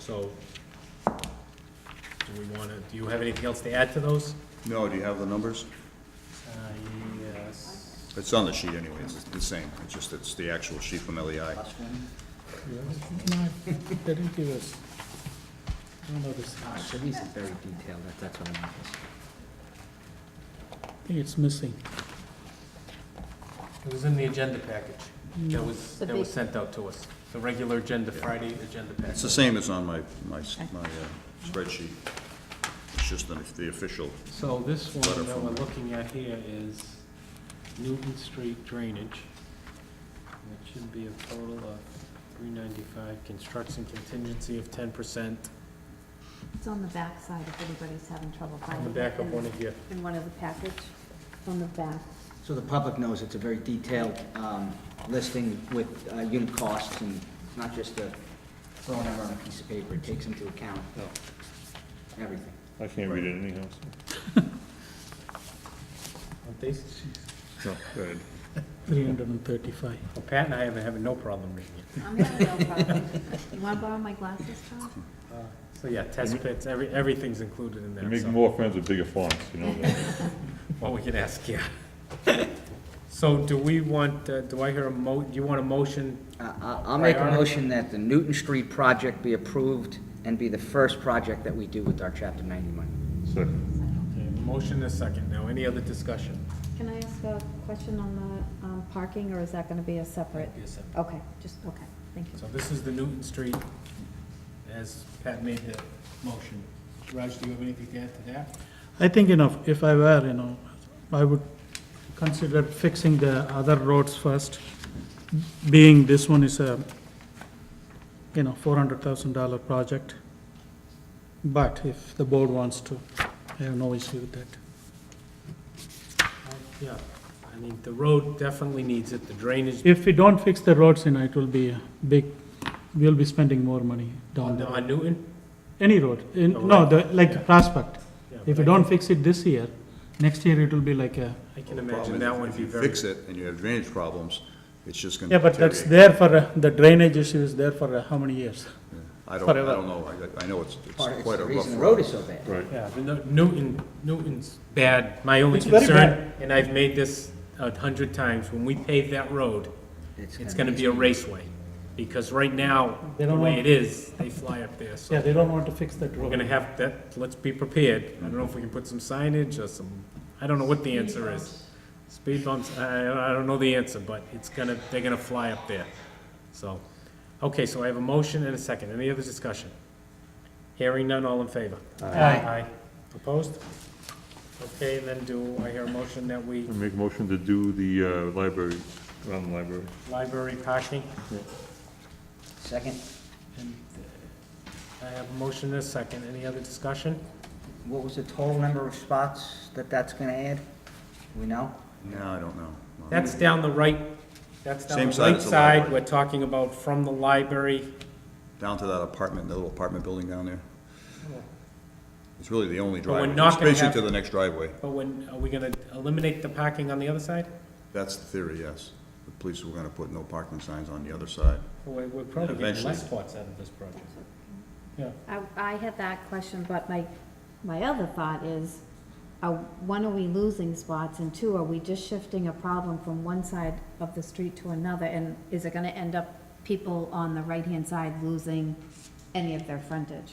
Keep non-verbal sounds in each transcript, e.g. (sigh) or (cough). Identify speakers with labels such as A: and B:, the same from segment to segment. A: So, do we want to, do you have anything else to add to those?
B: No, do you have the numbers?
A: Uh, yes.
B: It's on the sheet anyways, it's the same, it's just, it's the actual sheet from E LEI.
C: (laughs) No, they didn't give us, I don't know this,
D: Uh,
C: I
D: So these are very detailed, that- that's what I want.
C: think it's missing.
A: It was in the agenda package that was,
E: The
A: that was
E: big-
A: sent out to us, the regular agenda, Friday agenda
B: It's the
A: package.
B: same as on my, my, my uh, spreadsheet. It's just the, the official,
A: So this
B: Letter
A: one that
B: from-
A: we're looking at here is Newton Street drainage. And It should be a total of three ninety-five, construction contingency of ten percent.
E: It's on the back side if anybody's having trouble
A: On
E: finding
A: the
E: it.
A: back of
E: in-
A: one of your,
E: In one of the package, on the back.
D: So the public knows it's a very detailed um, listing with uh, unit costs and it's not just a throwing out on a piece of paper. It takes into account everything.
F: I can't read it anyhow, so.
A: aren't they?
F: No, go ahead.
C: Three hundred and thirty-five.
A: Well, Pat and I have, have no problem reading it.
E: I'm having no problem. You wanna borrow my glasses, Tom?
A: Uh, So, yeah, test pits, every, everything's included in
F: You
A: there,
F: make
A: so.
F: more friends with bigger fonts, you know that.
A: Well, we can ask,
B: (laughs)
A: yeah. So do we want, uh, do I hear a mo, do you want a motion?
D: Uh, I- I'll make a
A: Priority.
D: motion that the Newton Street project be approved and be the first project that we do with our Chapter 90 money.
F: Second,
A: Okay, Motion and a second. Now, any other discussion?
E: Can I ask a question on the, um, parking, or is that gonna be a separate?
A: Yes, sir.
E: Okay, just, okay, thank you.
A: So this is the Newton Street, as Pat made the motion. Raj, do you have anything to add to that?
C: I think, you know, if I were, you know, I would consider fixing the other roads first, being this one is a, you know, four hundred thousand dollar project. But if the board wants to, I have no issue with that.
A: Yeah, I mean, the road definitely needs it, the drainage
C: If we don't fix the roads, you know, it will be a big, we'll be spending more money down
A: on
C: the
A: the- on Newton.
C: Any road, in,
A: Oh,
C: no,
A: right.
C: the,
A: Yeah.
C: like Prospect.
A: Yeah, but
C: If you
A: I-
C: don't fix it this year, next year it will be like a,
A: I can
B: problem
A: imagine
B: is
A: that one
B: if
A: would be
B: you
A: very.
B: fix it and you have drainage problems, it's just gonna
C: yeah, but that's
B: deteriorate.
C: there for, uh, the drainage issue is there for uh, how many years?
B: I don't, I
C: forever.
B: don't know, I, I know it's, it's
D: Part- It's
B: quite
D: the
B: a rough
D: reason the road
B: road.
D: is so bad.
F: right.
A: Yeah, the New- Newton, Newton's bad. My only
C: It's very
A: concern, and I've made this a hundred times, when we pave that road, it's gonna be a raceway. Because right now,
C: They
A: the
C: don't
A: way
C: want-
A: it is, they fly up there, so.
C: Yeah, they don't want to fix that
A: We're
C: road.
A: gonna have that, let's be prepared. I don't know if we can put some signage or some, I don't know what the answer is. Speed bumps, I, I don't know the answer, but it's gonna, they're gonna fly up there. So, okay, so I have a motion and a second. Any other discussion? Hearing none, all in favor? Aye. Opposed? Okay, then do I hear a motion that we,
F: I make a motion to do the uh, library, around the library.
A: library parking?
D: Second,
A: And I have a motion and a second. Any other discussion?
D: what was the total number of spots that that's going to add? Do we know?
B: No, I don't know. No.
A: That's down the right, that's down
B: Same
A: the
B: side
A: right
B: as the
A: side,
B: library.
A: we're talking about from the library.
B: Down to that apartment, that little apartment building down there. It's really the only
A: But we're
B: driveway,
A: not
B: it's
A: gonna
B: basically
A: have-
B: to the next driveway.
A: But when, are we gonna eliminate the parking on the other side?
B: That's the theory, yes. The police were gonna put no parking signs on the other side.
A: We're, we're probably getting
B: Eventually.
A: less spots out of this project. Yeah,
E: I, I had that question, but my, my other thought is, uh, one, are we losing spots, and two, are we just shifting a problem from one side of the street to another, and is it gonna end up people on the right-hand side losing any of their frontage?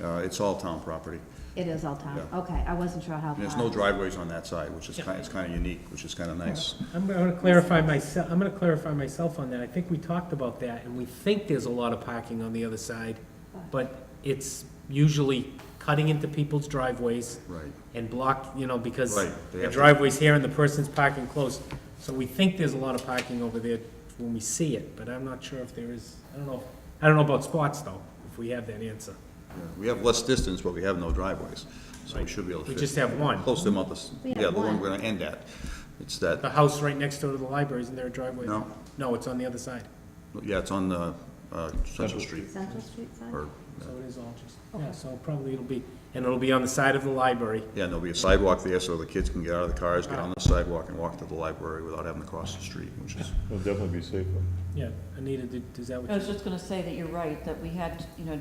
B: Uh, it's all town property.
E: It is all town,
B: Yeah.
E: okay, I wasn't sure how far.
B: And there's no driveways on that side, which is kinda, it's kinda unique, which is kinda nice.
A: I'm gonna clarify myself, I'm gonna clarify myself on that, I think we talked about that, and we think there's a lot of parking on the other side, but it's usually cutting into people's driveways
B: Right.
A: and block, you know, because
B: Right, they
A: the
B: have to-
A: driveway's here and the person's parking close. So we think there's a lot of parking over there when we see it, but I'm not sure if there is, I don't know, I don't know about spots though, if we have that answer.
B: Yeah, We have less distance, but we have no driveways, so we
A: Right.
B: should be able to
A: We
B: fit.
A: just have one.
B: Close them up, this-
E: We have
B: yeah, the one
E: one.
B: we're gonna end at. It's that,
A: The house right next door to the library, isn't there a driveway?
B: No.
A: No, it's on the other side,
B: yeah, it's on, uh, uh, Central Street,
E: Central Street side?
B: or,
A: so it is all just, yeah, so probably it'll be, and it'll be on the side of the library.
B: yeah, and there'll be a sidewalk there, so the kids can get out of the cars, get on the sidewalk, and walk to the library without having to cross the street, which is
F: It'll definitely be safer.
A: Yeah, Anita, did- is that what you?
G: I was just gonna say that you're right, that we had, you know,